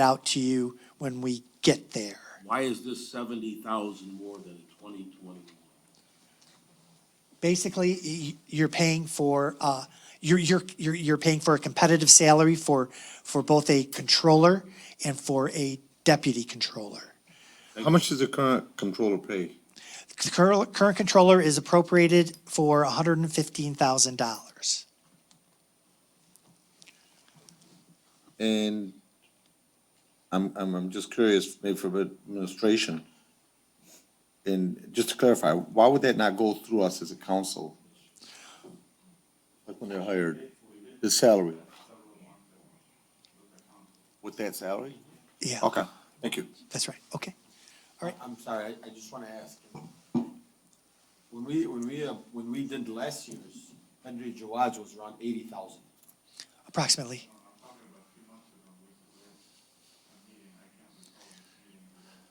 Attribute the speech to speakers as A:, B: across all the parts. A: out to you when we get there.
B: Why is this seventy thousand more than twenty twenty-one?
A: Basically, y- you're paying for, uh, you're, you're, you're, you're paying for a competitive salary for, for both a controller and for a deputy controller.
C: How much does the current controller pay?
A: The current, current controller is appropriated for hundred and fifteen thousand dollars.
C: And I'm, I'm, I'm just curious, maybe for administration. And just to clarify, why would that not go through us as a council? Like when they're hired, the salary? With that salary?
A: Yeah,
C: Okay, thank you.
A: that's right, okay.
D: I'm sorry, I, I just wanna ask. When we, when we, uh, when we did last year's, Henry Jawad's was around eighty thousand.
A: Approximately.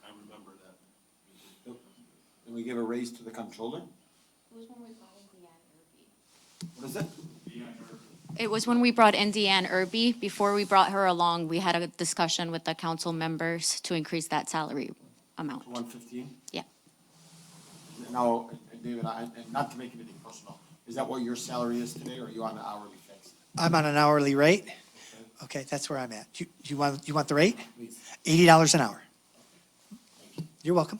B: I remember that.
D: And we gave a raise to the controller?
E: It was when we brought in Deanne Irby.
D: What is it?
E: It was when we brought in Deanne Irby. Before we brought her along, we had a discussion with the council members to increase that salary amount.
D: One fifteen?
E: Yeah.
D: Now, and David, I, and not to make anything personal, is that what your salary is today, or are you on an hourly fixed?
A: I'm on an hourly rate. Okay, that's where I'm at. You, you want, you want the rate?
D: Please.
A: Eighty dollars an hour. You're welcome.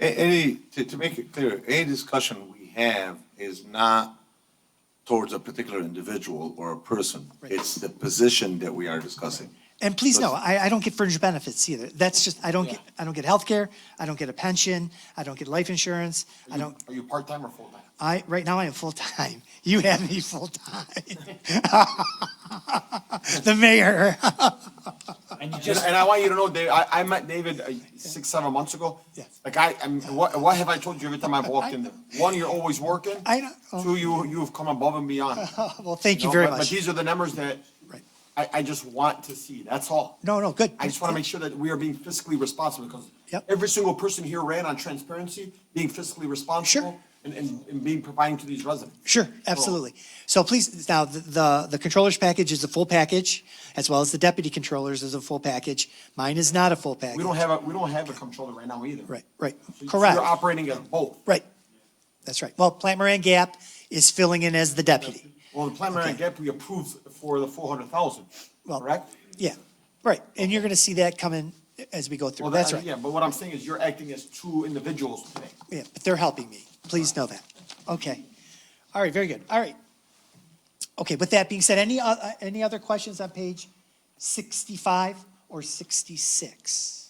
C: A- Any, to, to make it clear, any discussion we have is not towards a particular individual or a person.
A: Right.
C: It's the position that we are discussing.
A: And please know, I, I don't get fringe benefits either. That's just, I don't get, I don't get healthcare, I don't get a pension, I don't get life insurance, I don't,
D: Are you part-time or full-time?
A: I, right now I am full-time. You have me full-time. The mayor.
D: And, and I want you to know, Dave, I, I met David uh, six, seven months ago.
A: Yes.
D: Like I, I'm, what, what have I told you every time I've walked in there? One, you're always working.
A: I know. Oh.
D: Two, you, you've come above and beyond.
A: Well, thank you
D: know,
A: very
D: but- But
A: much.
D: these are the numbers that
A: Right.
D: I, I just want to see, that's all.
A: No, no, good.
D: I just want to make sure that we are being fiscally responsible, because
A: Yep.
D: every single person here ran on transparency, being fiscally responsible, and, and, and being providing to these residents.
A: Sure, absolutely. So please, now, the- the, the controller's package is the full package, as well as the deputy controller's is a full package. Mine is not a full package.
D: We don't have a, we don't have a controller right now either.
A: Right, right,
D: So you- so
A: correct.
D: You're operating at both.
A: Right. That's right. Well, Plant Moran Gap is filling in as the deputy.
D: Well, the preliminary
A: Okay.
D: gap we approved for the four hundred thousand,
A: Well,
D: correct?
A: Yeah, right. And you're going to see that coming as we go through.
D: Well,
A: That's
D: that,
A: right.
D: yeah, but what I'm saying is you're acting as two individuals today.
A: Yeah, but they're helping me. Please know that. Okay. All right, very good. All right. Okay, with that being said, any, o- uh, any other questions on page 65 or 66?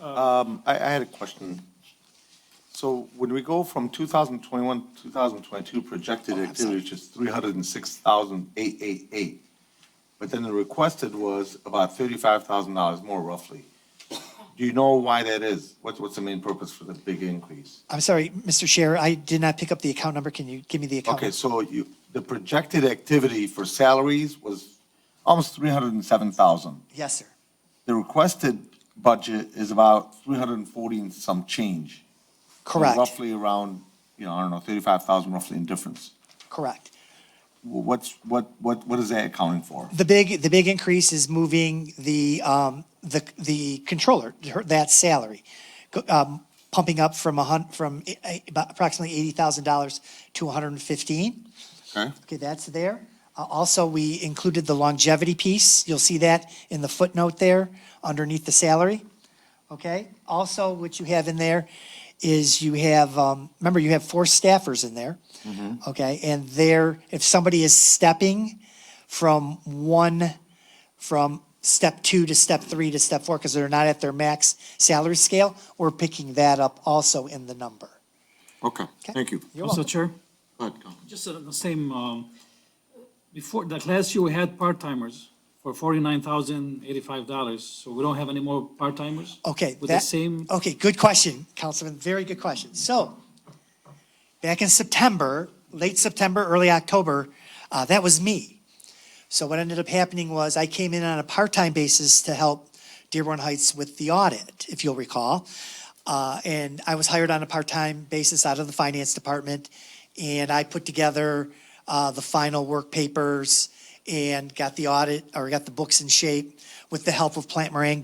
C: I, I had a question. So when we go from 2021, 2022 projected
A: Oh, I'm sorry.
C: activity, which is 306,888, but then the requested was about $35,000 more roughly. Do you know why that is? What's, what's the main purpose for the big increase?
A: I'm sorry, Mr. Chair, I did not pick up the account number. Can you give me the account?
C: Okay,
A: number?
C: so you, the projected activity for salaries was almost 307,000.
A: Yes, sir.
C: The requested budget is about 340 and some change. So
A: Correct,
C: Roughly around, you know, I don't know, thirty-five thousand roughly in difference.
A: correct.
C: Well, What's, what, what, what is that accounting for?
A: The big, the big increase is moving the, um, the, the controller, her- that salary, go- um, pumping up from a hun, from eh, eh, about approximately eighty thousand dollars to a hundred and fifteen.
C: Okay.
A: Okay, that's there. Uh, also, we included the longevity piece. You'll see that in the footnote there underneath the salary. Okay, also what you have in there is you have, um, remember you have four staffers in there.
C: Mm-hmm.
A: Okay, and there, if somebody is stepping from one, from step two to step three to step four, because they're not at their max salary scale, we're picking that up also in the number.
C: Okay, thank you.
A: You're welcome.
F: Mr. Chair,
C: Go ahead, Councilman.
F: just on the same, um, before, like last year, we had part-timers for forty-nine thousand eighty-five dollars, so we don't have any more part-timers?
A: Okay.
F: With the
A: that-
F: same,
A: Okay, good question, Councilman, very good question. So, back in September, late September, early October, uh, that was me. So what ended up happening was I came in on a part-time basis to help Dearborn Heights with the audit, if you'll recall. Uh, and I was hired on a part-time basis out of the finance department, and I put together, uh, the final work papers and got the audit, or got the books in shape with the help of Plant Moran